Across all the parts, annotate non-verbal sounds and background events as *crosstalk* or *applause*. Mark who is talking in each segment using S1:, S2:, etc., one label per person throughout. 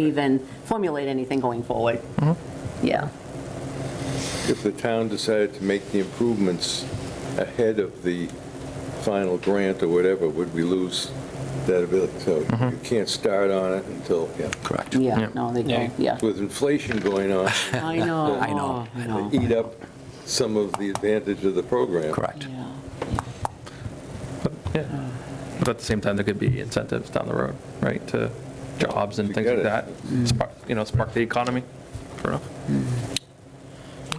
S1: even formulate anything going forward. Yeah.
S2: If the town decided to make the improvements ahead of the final grant or whatever, would we lose that ability? So you can't start on it until, yeah.
S3: Correct.
S1: Yeah, no, they don't, yeah.
S2: With inflation going on,
S1: I
S2: *laughs*
S1: know.
S3: I know.
S1: I
S2: to
S1: know.
S2: eat up some of the advantage of the program.
S3: Correct.
S1: Yeah.
S4: Yeah. But at the same time, there could be incentives down the road, right, to jobs and
S2: You
S4: things
S2: get
S4: like
S2: it.
S4: that.
S5: Mm.
S4: Spark, you know, spark the economy. Fair enough.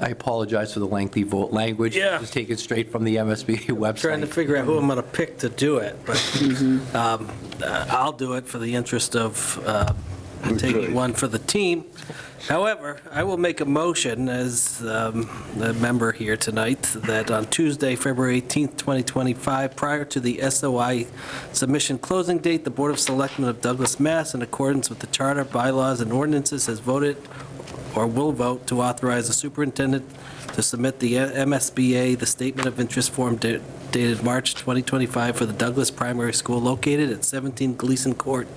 S3: I apologize for the lengthy vote language.
S5: Yeah.
S3: Just take it straight from the *laughs* MSBA
S5: Trying to
S3: website.
S5: figure out who I'm going to pick to do it, but
S2: Mm-hmm.
S5: um, uh, I'll do it for the interest of uh,
S2: Good choice.
S5: taking one for the team. However, I will make a motion as um, a member here tonight that on Tuesday, February 18th, 2025, prior to the SOI submission closing date, the Board of Selectmen of Douglas, Mass., in accordance with the charter, bylaws, and ordinances, has voted or will vote to authorize the superintendent to submit the MSBA, the Statement of Interest Form da- dated March 2025 for the Douglas Primary School located at 17 Gleason Court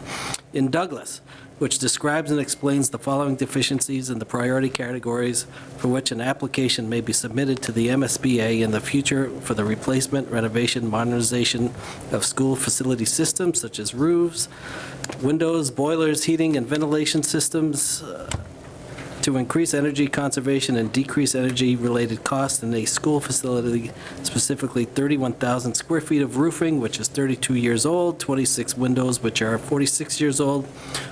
S5: in Douglas, which describes and explains the following deficiencies in the priority categories for which an application may be submitted to the MSBA in the future for the replacement, renovation, modernization of school facility systems such as roofs, windows, boilers, heating, and ventilation systems, uh, to increase energy conservation and decrease energy-related costs in a school facility, specifically 31,000 square feet of roofing, which is 32 years old, 26 windows, which are 46 years old,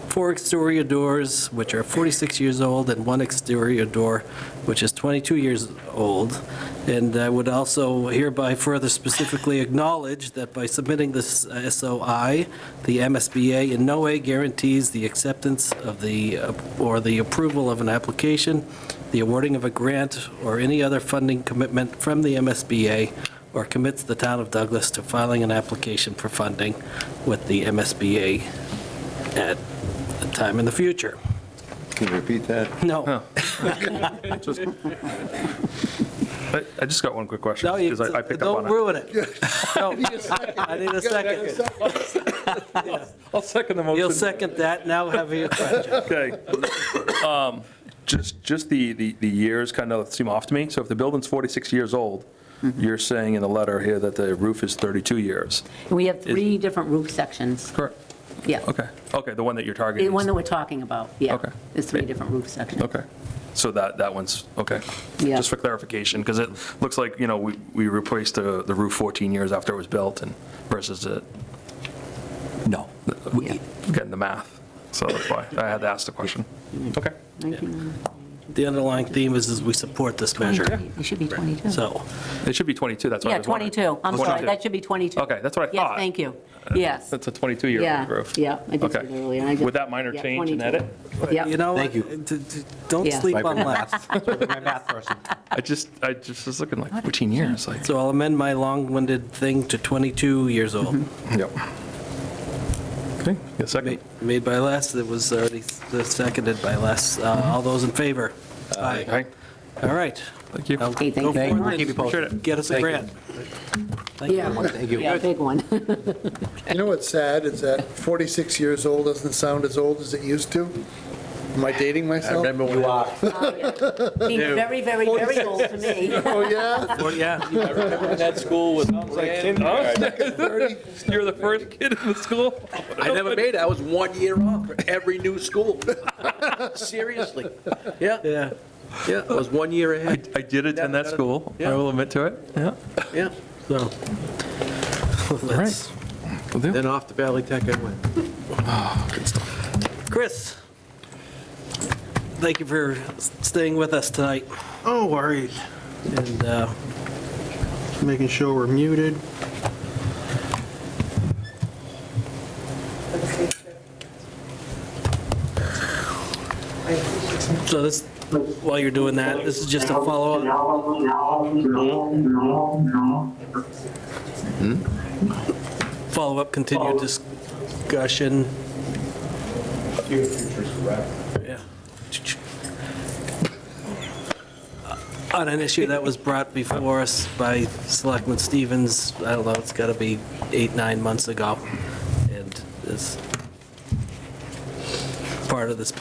S5: four exterior doors, which are 46 years old, and one exterior door, which is 22 years old. And I would also hereby further specifically acknowledge that by submitting this uh, SOI, the MSBA in no way guarantees the acceptance of the, uh, or the approval of an application, the awarding of a grant, or any other funding commitment from the MSBA, or commits the town of Douglas to filing an application for funding with the MSBA at a time in the future.
S2: Can you repeat that?
S5: No,
S4: Just- I I just got one quick question,
S5: no, you,
S4: because I picked up on
S5: don't
S4: it.
S5: ruin it. No, I need a second.
S4: I'll second the motion.
S5: You'll second that, now have your question.
S4: Okay. Um, Just, just the, the the years kind of seem off to me. So if the building's 46 years old,
S5: Mm-hmm.
S4: you're saying in the letter here that the roof is 32 years.
S1: We have three different roof sections,
S4: Correct.
S1: yeah.
S4: Okay, okay, the one that you're
S1: The
S4: targeting.
S1: one
S4: is-
S1: that we're talking about, yeah.
S4: Okay.
S1: There's three different roof sections.
S4: Okay, so that, that one's, okay.
S1: Yeah.
S4: Just for clarification, because it looks like, you know, we we replaced the the roof 14 years after it was built and versus it,
S3: No. We-
S4: getting the math. So that's why I had to ask the question. Okay.
S5: The underlying theme is, is we support this measure,
S1: It should be 22.
S5: so.
S4: It should be 22, that's why I
S1: Yeah,
S4: was wondering.
S1: 22, I'm sorry,
S4: 22.
S1: that should be 22.
S4: Okay, that's what I
S1: Yes,
S4: thought. Uh,
S1: thank you, yes.
S4: That's a 22-year-old
S1: Yeah,
S4: roof.
S1: yeah, I did see
S4: Okay.
S1: that earlier. and I just-
S4: With that minor
S1: yeah,
S4: change and
S1: 22.
S4: edit,
S5: You
S1: Yep,
S5: know,
S3: Thank you.
S5: d- d- don't
S1: Yeah.
S5: sleep
S3: My
S5: on
S3: bad. *laughs*
S5: that.
S3: My math person.
S4: I just, I just was looking like 14 years, like.
S5: So I'll amend my long-winded thing to 22 years old.
S4: Yep. Okay, you second?
S5: Ma- Made by Les, that was already s- seconded by Les. Uh, All those in favor? Aye.
S4: Okay,
S5: All right.
S4: thank you.
S5: Now
S1: Okay, thank
S5: go
S1: you very
S5: forward
S1: much.
S5: and
S3: Keep you posted.
S5: Get us a
S3: Thank you.
S5: grant. Thank you.
S1: yeah,
S3: Thank you.
S1: yeah, big one. *laughs*
S6: You know what's sad is that 46 years old doesn't sound as old as it used to. Am I dating myself?
S3: You are.
S1: Seems very, very, very old to me.
S6: Oh, yeah?
S5: Well, Yeah,
S4: You're the first kid in the school?
S7: I never made it. I was one year off for every new
S3: *laughs*
S7: school. Seriously. Yeah,
S5: yeah.
S7: yeah, I was one year
S4: I
S7: ahead,
S4: I did attend that school, I
S7: Yeah.
S4: will admit to it, yeah.
S7: yeah.
S5: So, *laughs* let's,
S7: Then off to Valley Tech I went.
S5: Chris, thank you for s- staying with us tonight.
S8: Oh, worried.
S5: And uh,
S8: Making sure we're muted.
S5: so this, while you're doing that, this is just a follow-up
S9: No, no, no, no, no.
S5: follow-up, continued discussion. Yeah. On an issue that was brought before us by Selectman Stevens, I don't know, it's got to be eight, nine months ago. And this, part of this